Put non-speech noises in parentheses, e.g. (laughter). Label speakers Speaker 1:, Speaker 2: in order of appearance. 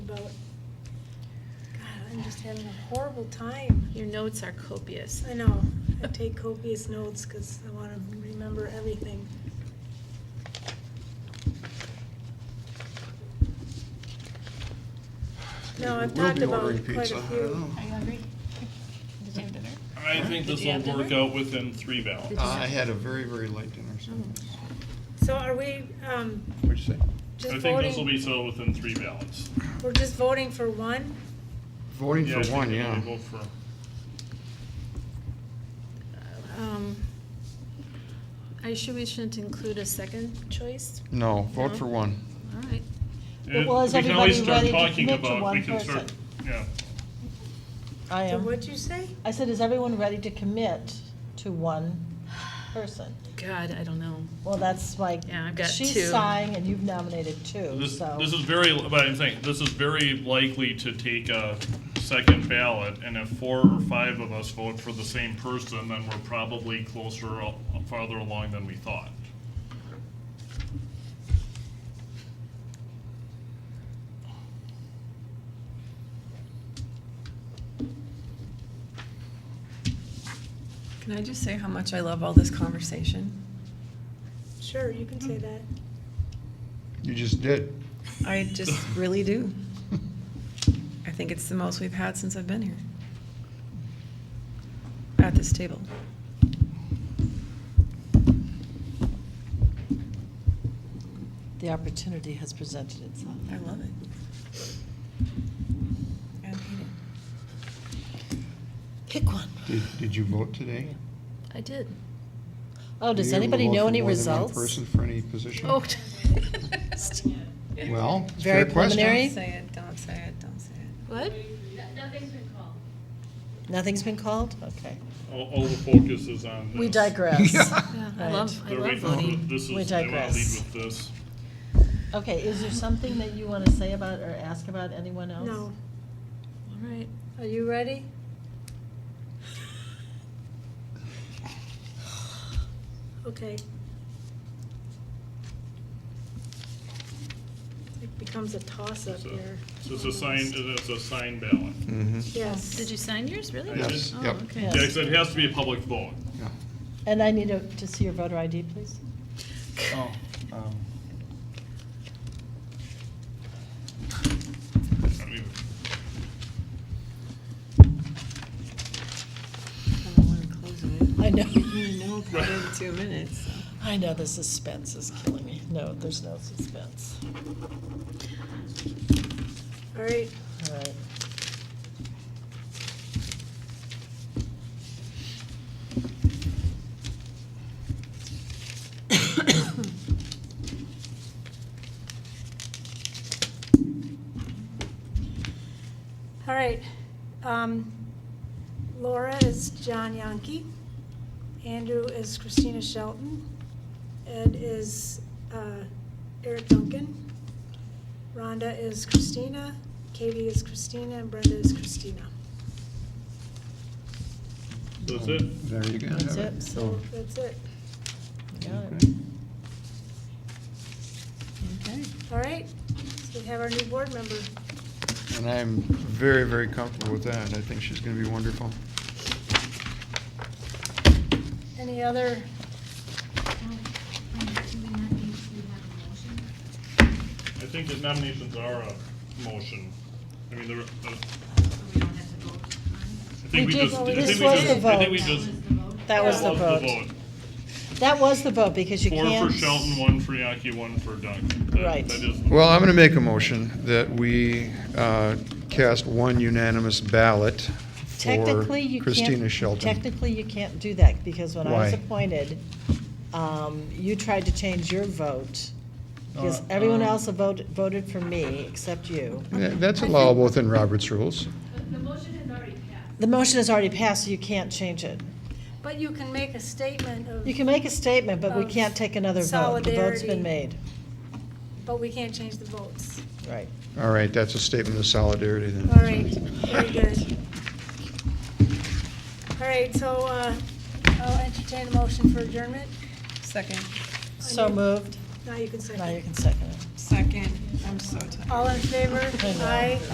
Speaker 1: about. God, I'm just having a horrible time.
Speaker 2: Your notes are copious.
Speaker 1: I know. I take copious notes because I want to remember everything. No, I've
Speaker 3: We'll
Speaker 1: talked
Speaker 3: be
Speaker 1: about
Speaker 3: ordering
Speaker 1: quite
Speaker 3: pizza.
Speaker 1: a
Speaker 3: I
Speaker 1: few.
Speaker 3: don't know.
Speaker 2: Are you hungry? Did you have dinner?
Speaker 4: I think
Speaker 2: Did
Speaker 4: this
Speaker 2: you have
Speaker 4: will work
Speaker 2: dinner?
Speaker 4: out within three ballots.
Speaker 3: I had a very, very light dinner, so.
Speaker 1: So are we, um,
Speaker 3: What'd you say?
Speaker 1: just
Speaker 4: I think this will
Speaker 1: voting,
Speaker 4: be settled within three ballots.
Speaker 1: we're just voting for one?
Speaker 3: Voting
Speaker 4: I
Speaker 3: for
Speaker 4: think
Speaker 3: one,
Speaker 4: we'll
Speaker 3: yeah.
Speaker 4: vote for-
Speaker 2: Um, Are you sure we shouldn't include a second choice?
Speaker 3: No, vote
Speaker 2: No.
Speaker 3: for one.
Speaker 2: All right.
Speaker 5: But was
Speaker 4: We can always
Speaker 5: everybody
Speaker 4: start
Speaker 5: ready to
Speaker 4: talking
Speaker 5: commit to
Speaker 4: about. We
Speaker 5: one
Speaker 4: can start.
Speaker 5: person?
Speaker 4: Yeah,
Speaker 5: I
Speaker 1: So
Speaker 5: am.
Speaker 1: What'd you say?
Speaker 5: I said, is everyone ready to commit to one person?
Speaker 2: God, I don't know.
Speaker 5: Well, that's like,
Speaker 2: Yeah, I've got two.
Speaker 5: she's sighing and you've nominated two,
Speaker 4: this,
Speaker 5: so.
Speaker 4: this is very, but I'm saying, this is very likely to take a second ballot, and if four or five of us vote for the same person, then we're probably closer, or farther along than we thought.
Speaker 6: Can I just say how much I love all this conversation?
Speaker 1: Sure, you can say that.
Speaker 3: You just did.
Speaker 6: I
Speaker 3: (laughs)
Speaker 6: just really do. I think it's the most we've had since I've been here at this table.
Speaker 5: The opportunity has presented itself.
Speaker 6: I love it. I hate it.
Speaker 5: Pick one.
Speaker 3: Did, did you vote today?
Speaker 2: I did.
Speaker 5: Oh,
Speaker 3: Were
Speaker 5: does
Speaker 3: you able to
Speaker 5: anybody
Speaker 3: vote
Speaker 5: know
Speaker 3: for
Speaker 5: any
Speaker 3: more than one
Speaker 5: results?
Speaker 3: person for any position?
Speaker 2: Oh. (laughs)
Speaker 3: Well, it's a
Speaker 5: Very
Speaker 3: fair question.
Speaker 5: preliminary.
Speaker 6: Don't say it, don't say it, don't say it.
Speaker 2: What?
Speaker 7: Nothing's been called.
Speaker 5: Nothing's been called? Okay.
Speaker 4: All, all the focus is on this.
Speaker 3: (laughs)
Speaker 5: We digress.
Speaker 2: Yeah, I
Speaker 5: Right.
Speaker 2: love, I
Speaker 4: They're
Speaker 2: love
Speaker 4: waiting for-
Speaker 2: voting.
Speaker 4: This is, they
Speaker 5: We
Speaker 4: want to lead
Speaker 5: digress.
Speaker 4: with this.
Speaker 5: Okay, is there something that you want to say about or ask about anyone else?
Speaker 1: No.
Speaker 2: All right.
Speaker 1: Are you ready? Okay. It becomes a toss-up
Speaker 4: So-
Speaker 1: here.
Speaker 4: So it's a sign, it's a sign ballot.
Speaker 3: Mhm.
Speaker 1: Yes.
Speaker 2: Did you sign yours, really?
Speaker 4: I did. Yes,
Speaker 2: Oh,
Speaker 3: yep.
Speaker 2: okay.
Speaker 5: Yes.
Speaker 4: Yeah, 'cause it has to be a public vote.
Speaker 3: Yeah.
Speaker 5: And I need to to see your voter ID, please.
Speaker 3: Oh, um,
Speaker 4: I don't even-
Speaker 6: I don't want to close it.
Speaker 5: I know.
Speaker 2: (laughs)
Speaker 6: You know, probably in two minutes. so.
Speaker 5: I know the suspense is killing me. No, there's no suspense.
Speaker 1: All right,
Speaker 5: All right.
Speaker 1: all right. Um, Laura is John Yankee. Andrew is Christina Shelton. Ed is uh, Eric Duncan. Rhonda is Christina. Katie is Christina, and Brenda is Christina.
Speaker 4: So That's it.
Speaker 3: Um, There you go.
Speaker 5: That's it.
Speaker 1: So that's it.
Speaker 5: Got it.
Speaker 3: Okay.
Speaker 6: Okay.
Speaker 1: All right, so we have our new board member.
Speaker 3: And I'm very, very comfortable with that. I think she's going to be wonderful.
Speaker 1: Any other,
Speaker 7: Do we not need to have a motion?
Speaker 4: I think the nominations are a motion. I mean, there, I
Speaker 7: So we don't have to vote on
Speaker 4: think we
Speaker 5: We did-
Speaker 4: just, I think we
Speaker 5: this
Speaker 4: just,
Speaker 5: was the
Speaker 4: I think we
Speaker 5: vote.
Speaker 4: just.
Speaker 7: it? The vote?
Speaker 5: That was the
Speaker 4: that was
Speaker 5: vote. That was the vote because you
Speaker 4: Four
Speaker 5: can't.
Speaker 4: for Shelton, one for Yaki, one for Duncan. That-
Speaker 5: Right.
Speaker 4: That is,
Speaker 3: Well, I'm going to make a motion that we uh, cast one unanimous ballot for
Speaker 5: Technically, you can't.
Speaker 3: Christina Shelton.
Speaker 5: Technically, you can't do that because when I was
Speaker 3: Why?
Speaker 5: appointed, um, you tried to change your vote. Because
Speaker 3: Uh,
Speaker 5: everyone
Speaker 3: um,
Speaker 5: else voted, voted for me except you.
Speaker 3: Yeah, That's allowable within Robert's rules.
Speaker 7: The- The motion has already passed.
Speaker 5: The motion has already passed, so you can't change it.
Speaker 1: but you can make a statement of,
Speaker 5: You can make a statement, but we
Speaker 1: Of
Speaker 5: can't take another vote. The vote's
Speaker 1: solidarity.
Speaker 5: been made.
Speaker 1: but we can't change the votes.
Speaker 5: Right.
Speaker 3: All right, that's a statement of solidarity then.
Speaker 1: All right, very good. All right, so uh, I'll entertain a motion for adjournment.
Speaker 6: Second.
Speaker 5: So moved.
Speaker 1: Now you can second.
Speaker 5: Now you can second it.
Speaker 6: Second. I'm so tired.
Speaker 1: All in favor? Aye.